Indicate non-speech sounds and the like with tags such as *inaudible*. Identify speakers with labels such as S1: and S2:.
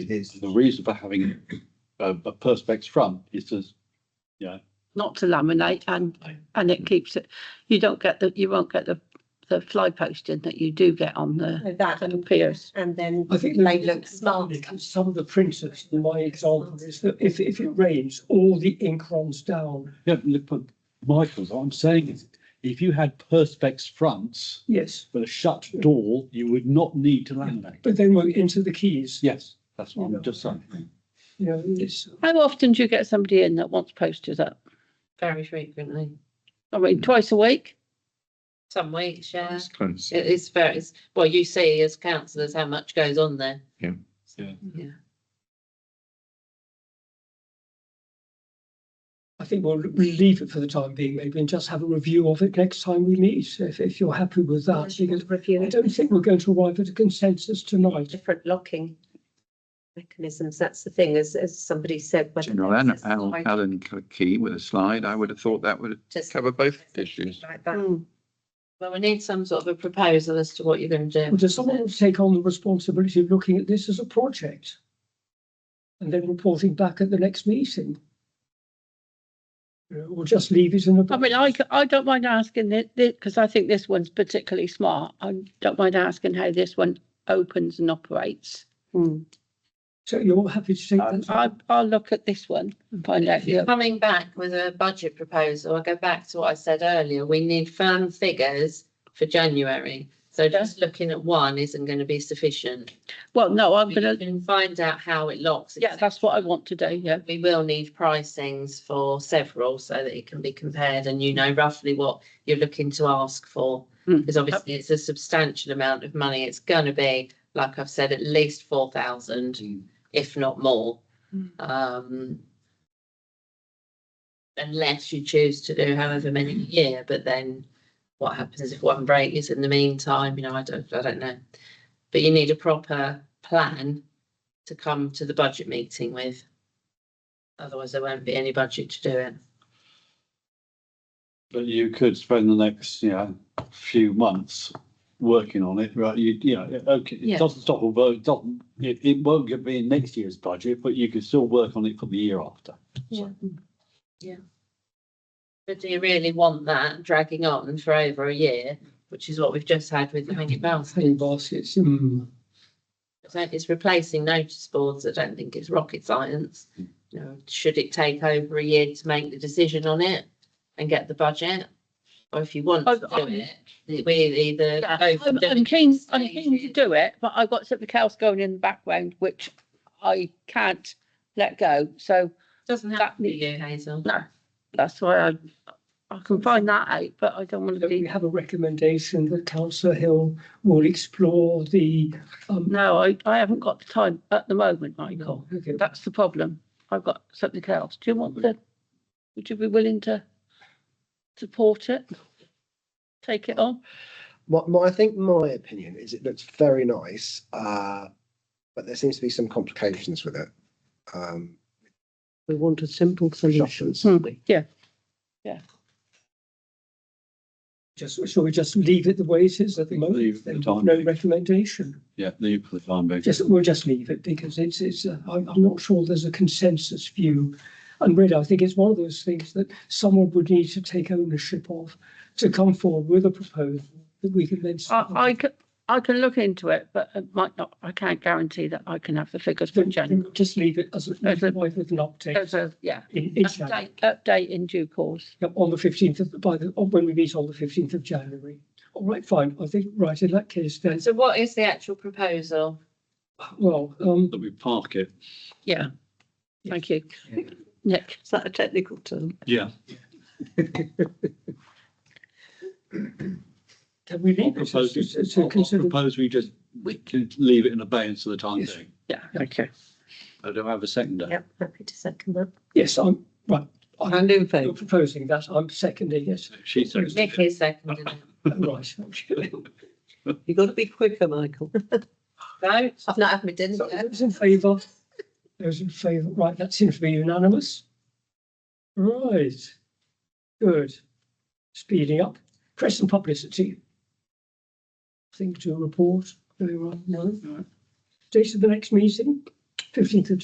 S1: it is.
S2: The reason for having a, a perspex front is to,
S3: not to laminate and, and it keeps it, you don't get the, you won't get the, the fly posting that you do get on the
S4: So That
S3: on the
S4: and,
S3: piers.
S4: and then
S5: I think
S4: they look smart.
S5: Some of the printers, in my example is that if, if it rains, all the ink runs down.
S2: yeah, look, but Michael's, what I'm saying is, if you had perspex fronts
S5: Yes,
S2: with a shut door, you would not need to laminate.
S5: but then we're into the keys.
S2: Yes, that's what I'm just saying.
S5: You know, it's,
S3: How often do you get somebody in that wants posters up?
S6: very frequently.
S3: I mean, twice a week?
S6: Some weeks, yeah.
S7: It's close.
S6: It is very, it's, well, you see as councillors how much goes on there.
S7: Yeah.
S2: Yeah.
S6: Yeah.
S5: I think we'll leave it for the time being maybe and just have a review of it next time we meet, if, if you're happy with that. Because I
S4: Review
S5: don't think we're going to arrive at a consensus tonight.
S4: different locking mechanisms. That's the thing, as, as somebody said. whether
S7: General
S4: there's
S7: Alan,
S4: a slide
S7: Alan Key with a slide, I would have thought that would
S4: to something
S7: cover both issues.
S4: Like that.
S5: Hmm.
S3: Mm.
S6: Well, we need some sort of a proposal as to what you're going to do.
S5: Well, Does someone want to take on the responsibility of looking at this as a project? And then reporting back at the next meeting? You know, Or just leave it in a.
S3: I mean, I, c- I don't mind asking it, because I think this one's particularly smart. I don't mind asking how this one opens and operates.
S5: So you're happy to take
S3: Um,
S2: Uh,
S5: that?
S3: I, I'll look at this one and find out. the other.
S6: Coming back with a budget proposal, I go back to what I said earlier, we need firm figures for January. So just looking at one isn't going to be sufficient.
S3: Well, no, I'm
S6: We
S3: gonna,
S6: can find out how it locks.
S3: uh, yeah, that's what I want to do, yeah.
S6: We will need pricings for several so that it can be compared and you know roughly what you're looking to ask for.
S3: Mm.
S6: Because obviously it's a substantial amount of money. It's going to be, like I've said, at least four thousand, if not more. Um, unless you choose to do however many a year, but then what happens if one break is in the meantime, you know, I don't, I don't know. But you need a proper plan to come to the budget meeting with. Otherwise, there won't be any budget to do it.
S2: But you could spend the next, you know, few months working on it, right? You, you know, it- okay,
S6: Yeah.
S2: it doesn't stop, although it doesn't, it, it won't get be in next year's budget, but you could still work on it for the year after.
S6: Yeah. Yeah. But do you really want that dragging on for over a year, which is what we've just had with the hanging baskets?
S5: Hanging baskets,
S2: Hmm.
S5: mm.
S6: So It's replacing notice boards. I don't think it's rocket science. You know, should it take over a year to make the decision on it and get the budget? Or if you want to
S3: I-
S6: do it, we either.
S3: Yeah,
S6: go for
S3: I'm,
S6: doing
S3: I'm keen, I'm
S6: stages.
S3: keen to do it, but I've got something else going in the background, which I can't let go. So
S6: Doesn't have to be you, Hazel.
S3: no, that's why I, I can find that out, but I don't want to
S5: Don't we
S3: be,
S5: have a recommendation that councillor Hill will explore the, um,
S3: no, I, I haven't got the time at the moment, Michael.
S5: okay,
S3: That's the problem. I've got something else. Do you want the, would you be willing to support it? Take it on?
S1: My, my, I think my opinion is it looks very nice, uh, but there seems to be some complications with it. Um,
S8: We want a simple solution.
S3: Hmm.
S1: Shutters.
S3: Yeah,
S5: just, shall we just leave it the way it is at the
S2: Leave it
S5: moment?
S2: for the
S5: Then
S2: time
S5: No
S2: being.
S5: recommendation.
S2: Yeah, leave for the time being.
S5: Just, we'll just leave it because it's, it's, uh, I'm, I'm not sure there's a consensus view. And really, I think it's one of those things that someone would need to take ownership of, to come forward with a proposal that we can then.
S3: I, I can, I can look into it, but it might not, I can't guarantee that I can have the figures for
S5: Then-
S3: January.
S5: then Just leave it as, a-
S3: As a-
S5: with an update
S3: There's a, yeah,
S5: in, in January,
S3: update, update in due course.
S5: Yep, on the fifteenth of, by the, or when we meet on the fifteenth of January. All right, fine, I think, right, in that case, then,
S6: So what is the actual proposal?
S5: well, um,
S2: That we park it.
S3: Yeah. Thank you.
S1: Yeah.
S3: Nick,
S8: Is that a technical term?
S2: Yeah.
S5: can we leave it to-
S2: Propose,
S5: to,
S2: I'll-
S5: to
S2: I'll
S5: consider?
S2: propose we just, we can leave it in abeyance for the time
S5: Yes.
S2: being.
S3: yeah, okay.
S2: I don't have a second.
S4: Yep, happy to second that.
S5: Yes, I'm, right, I'm
S8: And in
S5: you're
S8: favour?
S5: proposing that, I'm seconding
S2: *laughs*
S5: it,
S2: She seconded
S6: Nick
S2: it.
S6: is seconding it.
S5: right, okay.
S8: You've got to be quicker, Michael.
S6: Vote.
S4: I've not had my dinner
S5: So
S4: yet.
S5: Those in favour? Those in favour, right, that seems to be unanimous. Right, good. Speeding up, press and publicity. Thing to report, anyone, no?
S2: No.
S5: Date of the next meeting, fifteenth of